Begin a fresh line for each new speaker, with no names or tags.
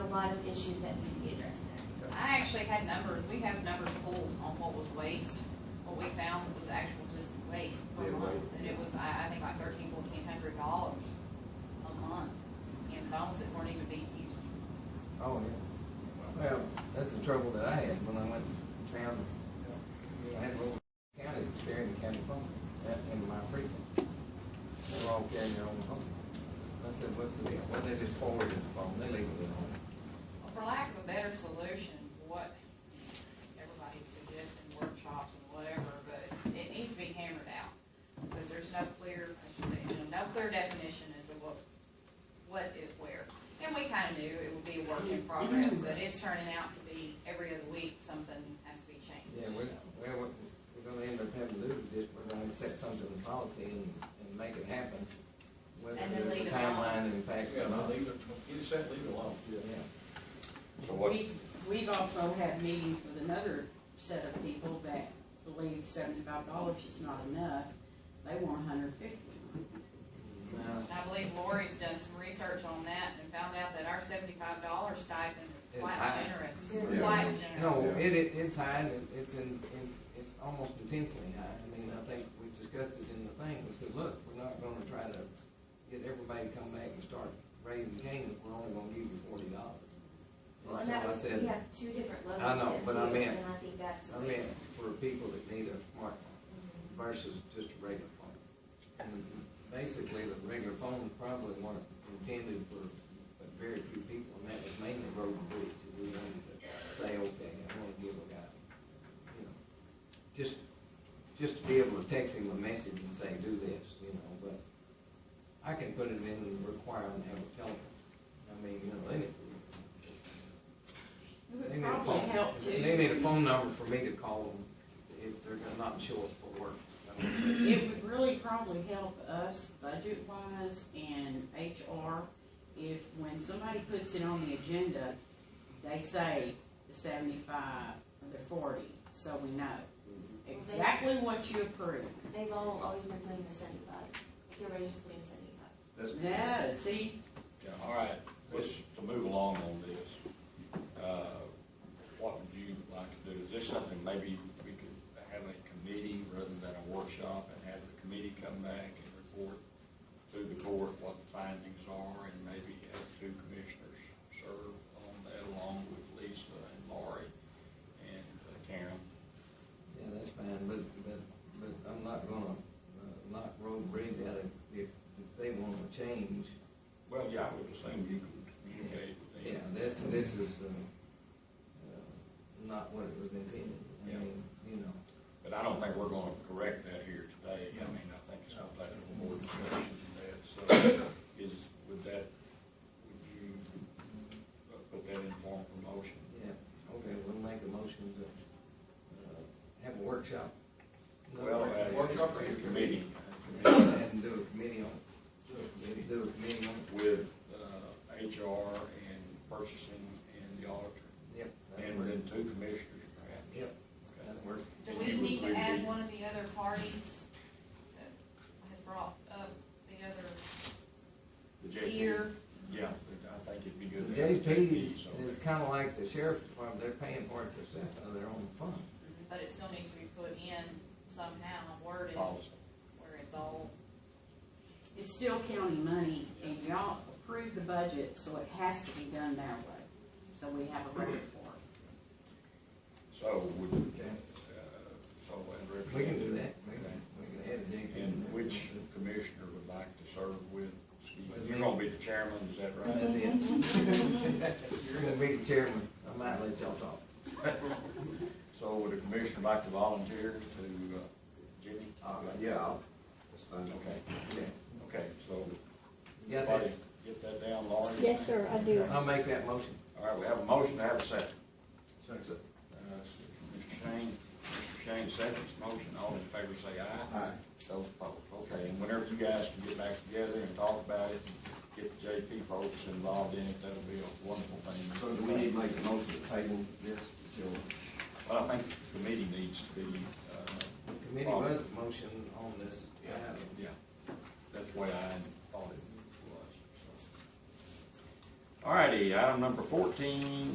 lot of issues that need to be addressed there.
I actually had numbers, we have numbers pulled on what was waste, what we found was actual just waste per
Yeah,
month.
right.
And it was, I, I think like thirteen, fourteen hundred dollars a month in phones that weren't even being used.
Oh, yeah.
Well, that's the trouble that I had when I went down, I had a little county, carrying the county phone, that in my precinct. They were all carrying their own phone. I said, what's the deal? Well, they just forwarded the phone, they leave it at home.
Well, For lack of a better solution, what everybody's suggesting, workshops and whatever, but it needs to be hammered out. Because there's no clear, I should say, you know, no clear definition as to what, what is where. And we kinda knew it would be a work in progress, but it's turning out to be every other week, something has to be changed.
Yeah, we're, we're, we're gonna end up having to do this, we're gonna set something in policy and, and make it happen. Whether
And then
there's a
leave it alone.
timeline in fact
Yeah,
or
no,
not.
leave it, get it set, leave it alone.
Yeah.
So what,
We've, we've also had meetings with another set of people that believe seventy-five dollars is not enough. They want a hundred fifty.
Now,
And I believe Lori's done some research on that and found out that our seventy-five dollar stipend is
It's
quite
high.
generous,
Yeah.
quite generous.
No, it, it, it's high, and it- it's in, it's, it's almost intentionally high, I mean, I think we discussed it in the thing, we said, look, we're not gonna try to get everybody to come back and start raising cane, we're only gonna give you forty dollars.
Well, and
And so
that
I
was, we
said,
have two different levels
I know,
there,
but I
too,
meant-
And I think that's.
I meant for people that need a smartphone versus just a regular phone. And basically, the regular phone probably weren't intended for but very few people, and that was mainly road and bridge, and we wanted to say, okay, I wanna give a guy, you know, just, just to be able to text him a message and say, do this, you know, but I can put it in and require him to have a telephone. I mean, you know, they need,
It
they
would
need a
probably
phone,
help too.
they need a phone number for me to call them if they're gonna not show up for work. I mean, it's-
It would really probably help us budget-wise and HR if, when somebody puts it on the agenda, they say the seventy-five or the forty, so we know
Mm-hmm.
exactly what you approve.
They've all always been putting the seventy-five, like everybody's just putting seventy-five.
that's,
No, see,
Yeah, all right, let's, to move along on this, uh, what would you like to do? Is this something maybe we could have a committee rather than a workshop and have the committee come back and report to the court what the findings are and maybe have two commissioners serve on that along with Lisa and Lori and uh, Karen?
Yeah, that's fine, but, but, but I'm not gonna, uh, knock road bridge out if, if if they wanna change.
Well, yeah, I would assume you could communicate with them.
Yeah, this, this is, uh, uh, not what it was intended. I
Yeah.
mean, you know,
But I don't think we're gonna correct that here today, I mean, I think it's gonna take a little more discussion than that, so is, would that, would you uh, put that in form of a motion?
yeah, okay, we'll make a motion to, uh, have a workshop. Another
Well, uh, at a
workshop.
committee,
And do a committee on, it. do a committee on, it.
with, uh, HR and purchasing and the auditor,
yep. that'll
and
work.
then two commissioners perhaps.
Yep,
Okay.
that'll work.
Do
And
we
you would
need to
agree
add
with-
one of the other parties that had brought up the other
The JP.
tier?
Yeah, but I think it'd be
The
good. to have
JP is,
so-
is kinda like the sheriff's department, they're paying for it themselves out of their own fund.
But it still needs to be put in somehow, worded,
Policy.
where it's all,
It's still county money, and y'all approved the budget, so it has to be done that way, so we have a record for it.
So would, uh,
Okay.
so and represent.
We can do that, we can, we can add a JP. in
And
there.
which commissioner would like to serve with Steve?
With
You're
me.
gonna be the chairman, is that
That's
Mm-hmm.
right?
it. You're gonna be the chairman, I might let y'all talk.
So would a commissioner like to volunteer to, uh, Jimmy?
uh, yeah, I'll- that's fine.
Okay,
Yeah.
okay, so,
You got
everybody
that?
get that down, Laurie?
Yes, sir, I do.
I'll make that motion.
All right, we have a motion, to have a second.
Second.
Uh, Mr. Shane, Mr. Shane seconds motion, all in favor say aye.
Aye.
Those opposed, okay, and whenever you guys can get back together and talk about it, get the JP folks involved in it, that'll be a wonderful thing.
So do we need to make a motion to table this until,
Well, I think the committee needs to be, uh.
Committee was the motion on this. item.
Yeah, that's the way I thought it was, so. Alrighty, item number fourteen